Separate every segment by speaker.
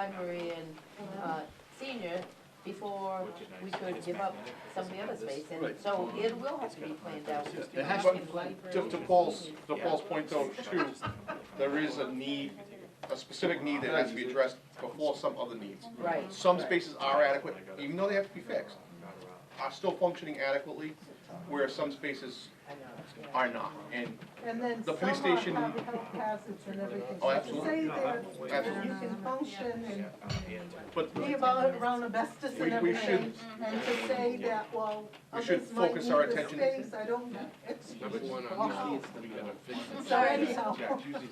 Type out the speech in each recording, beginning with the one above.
Speaker 1: library and, uh, senior before we could give up some of the other space, and
Speaker 2: Right.
Speaker 1: so it will have to be planned out.
Speaker 2: Yeah,
Speaker 1: We're
Speaker 2: it has-
Speaker 1: talking
Speaker 2: but
Speaker 1: library
Speaker 2: To, to Paul's,
Speaker 1: and
Speaker 2: to Paul's point though, too, there is a need, a specific need that has to be addressed before some other needs.
Speaker 1: senior. Right.
Speaker 2: Some spaces are adequate, even though they have to be fixed, are still functioning adequately, where some spaces
Speaker 1: I know, yeah.
Speaker 2: are not, and
Speaker 3: And then
Speaker 2: The
Speaker 3: some
Speaker 2: police
Speaker 3: are
Speaker 2: station-
Speaker 3: have health hazards and everything.
Speaker 2: Oh,
Speaker 3: So to
Speaker 2: absolutely.
Speaker 3: Say there, that you
Speaker 2: Absolutely.
Speaker 3: can function
Speaker 2: But
Speaker 3: and be about around asbestos
Speaker 2: We-
Speaker 3: and
Speaker 2: we
Speaker 3: everything. And to say that, well,
Speaker 2: We should
Speaker 3: others might
Speaker 2: focus
Speaker 3: need
Speaker 2: our
Speaker 3: the
Speaker 2: attention-
Speaker 3: space, I don't have extra.
Speaker 4: Number one on
Speaker 3: Wow.
Speaker 4: this list, we gotta fix it.
Speaker 3: So anyhow,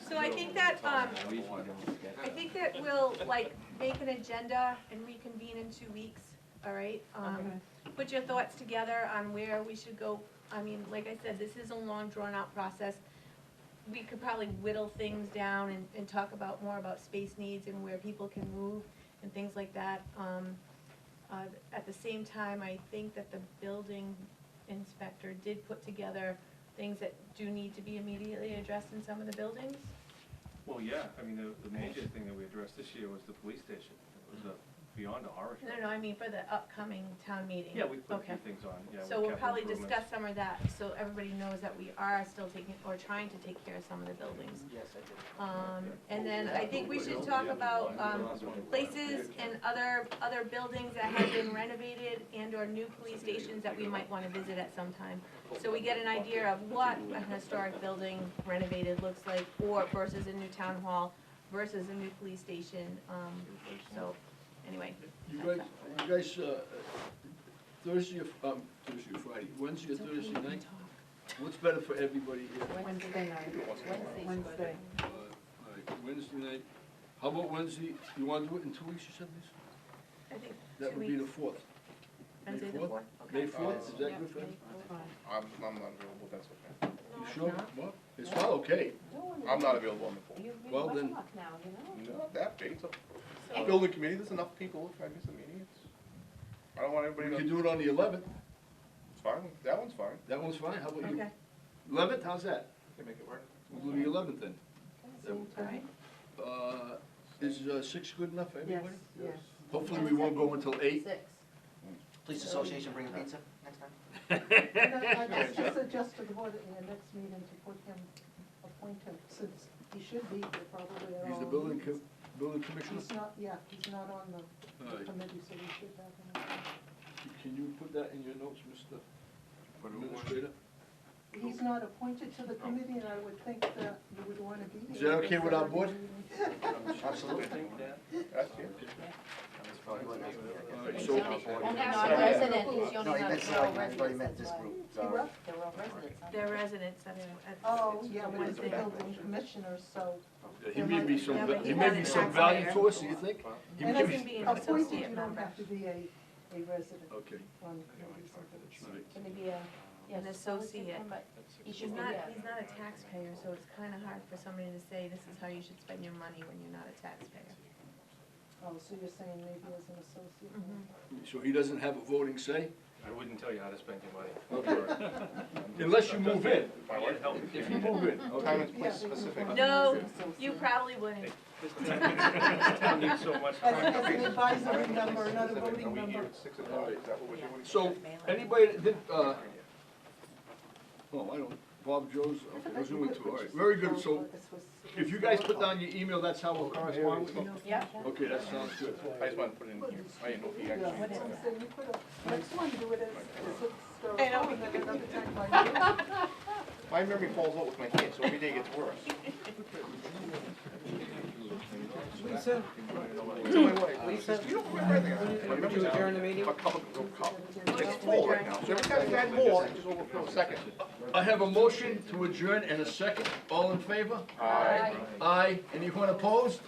Speaker 5: So I think that, um, I think that we'll, like, make an agenda and reconvene in two weeks, all right? Um, Put your thoughts together on where we should go. I mean, like I said, this is a long, drawn-out process. We could probably whittle things down and, and talk about, more about space needs and where people can move and things like that. Um, uh, At the same time, I think that the building inspector did put together things that do need to be immediately addressed in some of the buildings.
Speaker 6: Well, yeah, I mean, the, the major thing that we addressed this year was the police station. It was a, beyond our.
Speaker 5: No, no, I mean for the upcoming town meeting.
Speaker 6: Yeah, we put a
Speaker 5: Okay.
Speaker 6: few things on, yeah.
Speaker 5: So
Speaker 6: with
Speaker 5: we'll
Speaker 6: capital
Speaker 5: probably
Speaker 6: improvements.
Speaker 5: discuss some of that, so everybody knows that we are still taking, or trying to take care of some of the buildings.
Speaker 4: Yes,
Speaker 5: Um, and then I think we should talk about, um, places and other, other buildings that have been renovated and or new police stations that we might wanna visit at some time. So we get an idea of what an historic building renovated looks like, or versus a new town hall, versus a new police station, um, so, anyway.
Speaker 7: You guys, you guys, uh, Thursday, or- um, Thursday or Friday, Wednesday or
Speaker 5: It's okay, we
Speaker 7: Thursday
Speaker 5: can
Speaker 7: night,
Speaker 5: talk.
Speaker 7: what's better for everybody here?
Speaker 3: Wednesday night,
Speaker 1: Wednesday's
Speaker 3: Wednesday.
Speaker 7: Uh, like Wednesday night, how about Wednesday, you wanna do it in two weeks or something?
Speaker 5: I think
Speaker 7: That
Speaker 5: two
Speaker 7: would be the
Speaker 5: weeks,
Speaker 7: fourth.
Speaker 5: Wednesday the
Speaker 7: fourth?
Speaker 5: fourth,
Speaker 7: May
Speaker 5: okay.
Speaker 7: fourth, is that good for you?
Speaker 2: I'm, I'm not available, that's okay.
Speaker 7: You sure? Well, it's not okay.
Speaker 2: I'm not available on the
Speaker 1: You've been
Speaker 7: Well,
Speaker 1: much
Speaker 7: then-
Speaker 1: luck now, you know?
Speaker 2: fourth. Not that big, it's a-
Speaker 5: So-
Speaker 2: building committee, there's enough people, if I miss a meeting, it's, I don't want
Speaker 7: We
Speaker 2: everybody
Speaker 7: could
Speaker 2: to,
Speaker 7: do it on the eleventh,
Speaker 2: it's fine, that one's fine.
Speaker 7: that one's fine, how about you?
Speaker 5: Okay,
Speaker 7: Eleventh, how's that?
Speaker 4: Can make it work.
Speaker 7: We'll do the eleventh then.
Speaker 5: all right.
Speaker 7: Uh, is, uh, six good enough for
Speaker 3: Yes,
Speaker 7: everybody?
Speaker 3: yes.
Speaker 7: Hopefully we won't go until eight.
Speaker 1: Six.
Speaker 8: Police Association bring pizza next time?
Speaker 3: And I, I just suggest to the board in the next meeting to put him appointed, since he should be, here probably at all.
Speaker 7: He's the building co- building commissioner.
Speaker 3: He's not, yeah, he's not on the
Speaker 7: All right.
Speaker 3: committee, so we should have him.
Speaker 7: Can you put that in your notes, Mr. Administrator?
Speaker 3: He's not appointed to the committee, and I would think that you would want to be
Speaker 7: Is
Speaker 3: there.
Speaker 7: that okay with our board?
Speaker 8: Absolutely.
Speaker 2: That's it.
Speaker 7: All right,
Speaker 1: Only
Speaker 7: so,
Speaker 1: non-resident, is the only
Speaker 8: No, he meant,
Speaker 1: non-rural
Speaker 8: sorry, he already meant
Speaker 1: residents,
Speaker 8: this
Speaker 1: that's why.
Speaker 8: group,
Speaker 3: He
Speaker 8: sorry.
Speaker 3: what?
Speaker 1: They're all residents, huh?
Speaker 5: They're residents, that's, that's.
Speaker 3: Oh, yeah, but he's the
Speaker 5: Wednesday.
Speaker 3: building commissioner, so.
Speaker 7: he may be some,
Speaker 5: Yeah, but
Speaker 7: he may
Speaker 5: he
Speaker 7: be
Speaker 5: has
Speaker 7: some
Speaker 5: an
Speaker 7: value
Speaker 5: tax
Speaker 7: to us, do you think? He
Speaker 3: And
Speaker 7: may
Speaker 3: if
Speaker 7: be-
Speaker 5: can be an
Speaker 3: appointed,
Speaker 5: associate
Speaker 3: you don't
Speaker 5: member.
Speaker 3: have to be a, a resident
Speaker 7: Okay,
Speaker 3: on the committee. so that's-
Speaker 7: all right.
Speaker 1: Can they be a, yeah,
Speaker 5: An associate.
Speaker 1: But he
Speaker 5: He's
Speaker 1: should be,
Speaker 5: not,
Speaker 1: a-
Speaker 5: he's not a taxpayer, so it's kinda hard for somebody to say, this is how you should spend your money when you're not a taxpayer.
Speaker 3: Oh, so you're saying maybe as an associate?
Speaker 5: Mm-hmm.
Speaker 3: member.
Speaker 7: So he doesn't have a voting say,
Speaker 6: I wouldn't tell you how to spend your money.
Speaker 7: unless you move in.
Speaker 6: My wife helped me.
Speaker 7: If you move in,
Speaker 2: Time
Speaker 7: okay.
Speaker 2: and place
Speaker 3: Yeah, they could
Speaker 2: specific.
Speaker 3: appoint him
Speaker 5: No,
Speaker 3: as an associate.
Speaker 5: You probably wouldn't.
Speaker 6: This town needs so much.
Speaker 3: As as an advisory member, not a
Speaker 2: Are
Speaker 3: voting
Speaker 2: we here
Speaker 3: member.
Speaker 2: at six o'clock, is that what we're doing?
Speaker 7: So, anybody that did, uh, oh, I don't, Bob Joe's, okay, was doing two, all right, very good, so if you guys put down your email, that's how we'll correspond with you?
Speaker 1: yeah.
Speaker 7: Okay, that sounds good.
Speaker 2: I just wanted to put it in here, I didn't know if he
Speaker 3: Yeah,
Speaker 2: actually.
Speaker 3: so I'm saying you could have, next one, do it as, as a story,
Speaker 5: I know.
Speaker 3: and then another time by you.
Speaker 2: My memory falls out with my kids, so every day gets worse.
Speaker 4: Lisa,
Speaker 2: It's my wife.
Speaker 4: Lisa,
Speaker 2: You don't remember anything. My
Speaker 4: would
Speaker 2: memory's
Speaker 4: you
Speaker 2: out.
Speaker 4: adjourn the meeting?
Speaker 2: A cup of, a cup. It's full right now, so every time you add more, it just overflows. Second.
Speaker 7: I have a motion to adjourn and a second, all in favor? Aye. Aye, anyone opposed?